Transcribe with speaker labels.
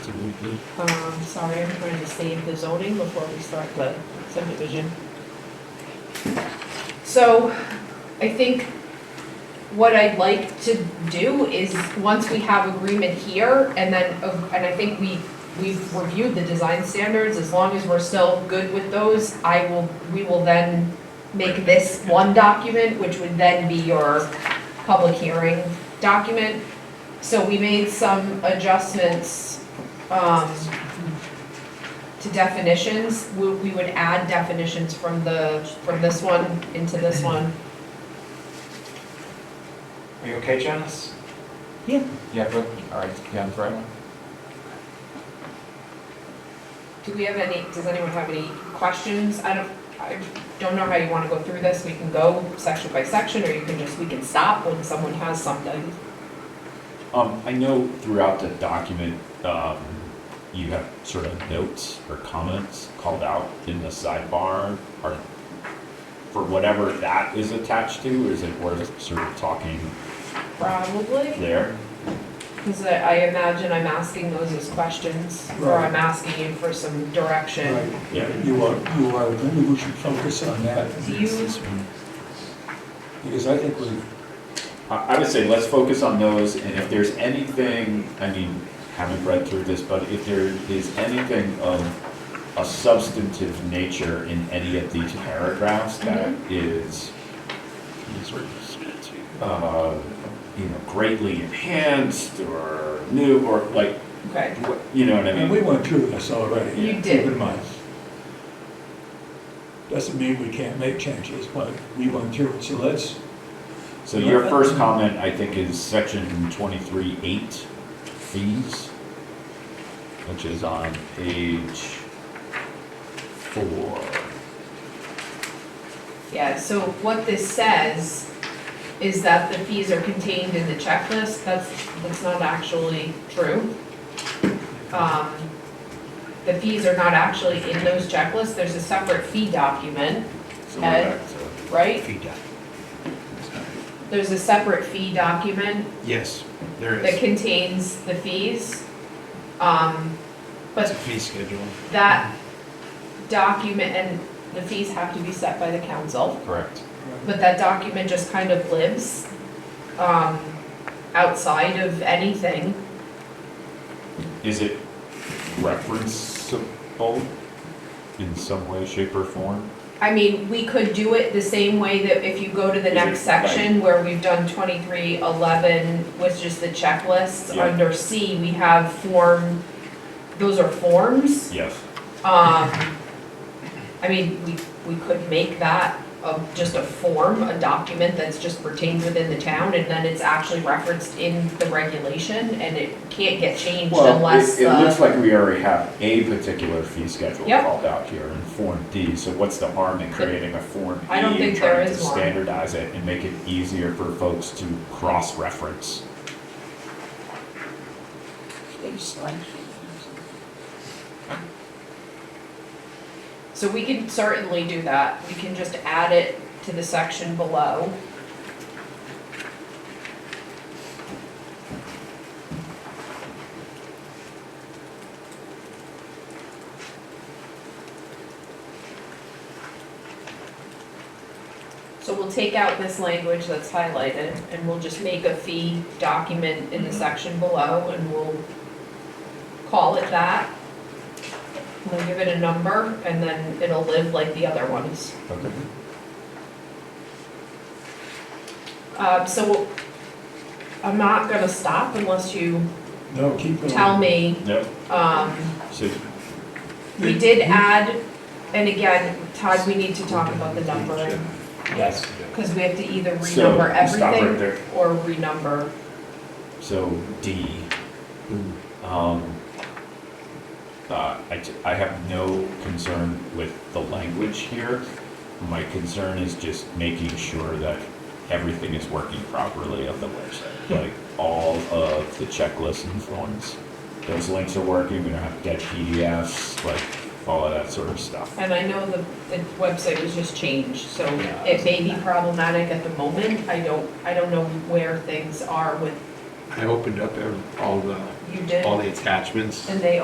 Speaker 1: Um, sorry, I'm trying to save the zoning before we start the subdivision. So I think what I'd like to do is, once we have agreement here, and then, uh, and I think we, we've reviewed the design standards, as long as we're still good with those, I will, we will then make this one document, which would then be your public hearing document. So we made some adjustments, um, to definitions, we, we would add definitions from the, from this one into this one.
Speaker 2: Are you okay, Janice?
Speaker 3: Yeah.
Speaker 2: Yeah, good, all right, yeah, I'm right.
Speaker 1: Do we have any, does anyone have any questions? I don't, I don't know how you wanna go through this, we can go section by section, or you can just, we can stop when someone has something.
Speaker 4: Um, I know throughout the document, um, you have sort of notes or comments called out in the sidebar, or for whatever that is attached to, is it worth sort of talking
Speaker 1: Probably,
Speaker 4: there?
Speaker 1: cause I, I imagine I'm asking those as questions, or
Speaker 5: Right.
Speaker 1: I'm asking you for some direction.
Speaker 5: Right,
Speaker 4: Yeah.
Speaker 5: you are, you are, maybe we should focus on that,
Speaker 1: Do you,
Speaker 5: because I think we've
Speaker 4: I, I would say let's focus on those, and if there's anything, I mean, haven't read through this, but if there is anything of a substantive nature in any of these paragraphs that is, uh, you know, greatly enhanced or new, or like,
Speaker 1: okay,
Speaker 4: what- you know what I
Speaker 5: And we
Speaker 4: mean?
Speaker 5: went through this already.
Speaker 1: You did.
Speaker 5: Keep in mind. Doesn't mean we can't make changes, but we went through it, so let's,
Speaker 4: So your first comment, I think, is section twenty-three eight, fees, which is on page four.
Speaker 1: yeah, so what this says is that the fees are contained in the checklist, that's, that's not actually true. Um, the fees are not actually in those checklists, there's a separate fee document,
Speaker 4: So we're
Speaker 1: Ed?
Speaker 4: back to-
Speaker 1: right?
Speaker 6: feedback.
Speaker 1: There's a separate fee document
Speaker 6: Yes, there
Speaker 1: that
Speaker 6: is.
Speaker 1: contains the fees. Um,
Speaker 6: It's a
Speaker 1: but
Speaker 6: fee schedule.
Speaker 1: that document, and the fees have to be set by the council,
Speaker 4: Uh, Correct.
Speaker 1: but that document just kind of lives, um, outside of anything.
Speaker 4: Is it referenceable in some way, shape, or form?
Speaker 1: I mean, we could do it the same way that if you go to the
Speaker 4: Is
Speaker 1: next
Speaker 4: it like-
Speaker 1: section where we've done twenty-three eleven, which is the checklists.
Speaker 4: Yeah.
Speaker 1: Under C, we have form, those are forms.
Speaker 4: Yes.
Speaker 1: Um, I mean, we, we could make that of just a form, a document that's just retained within the town, and then it's actually referenced in the regulation, and it can't get changed
Speaker 4: Well,
Speaker 1: unless
Speaker 4: it, it looks
Speaker 1: the,
Speaker 4: like we already have a particular fee schedule
Speaker 1: Yep.
Speaker 4: called out here in Form D, so what's the harm in creating a Form E?
Speaker 1: I don't think
Speaker 4: and trying
Speaker 1: there
Speaker 4: to
Speaker 1: is one.
Speaker 4: Standardize it and make it easier for folks to cross-reference.
Speaker 1: so we can certainly do that, we can just add it to the section below. So we'll take out this language that's highlighted, and we'll just make a fee document in the section below, and we'll call it that. We'll give it a number, and then it'll live like the other ones.
Speaker 4: Okay.
Speaker 1: Uh, so I'm not gonna stop unless you
Speaker 5: no, keep going.
Speaker 1: tell me,
Speaker 4: Yep,
Speaker 1: um,
Speaker 4: so
Speaker 1: we did add, and again, Todd, we need to talk about the numbering,
Speaker 6: Yes.
Speaker 1: cause we have to either
Speaker 4: So,
Speaker 1: renumber
Speaker 4: stop right
Speaker 1: everything
Speaker 4: there.
Speaker 1: or renumber.
Speaker 4: So D. Um, uh, I, t- I have no concern with the language here. My concern is just making sure that everything is working properly on the website. Like all of the checklists and forms. Those links are working, we don't have dead PDFs, like all of that sort of stuff.
Speaker 1: And I know the, the website was just changed, so
Speaker 4: Yeah.
Speaker 1: it may be problematic at the moment, I don't, I don't know where things are with,
Speaker 6: I opened up every- all the,
Speaker 1: you did,
Speaker 6: all the attachments.
Speaker 1: and they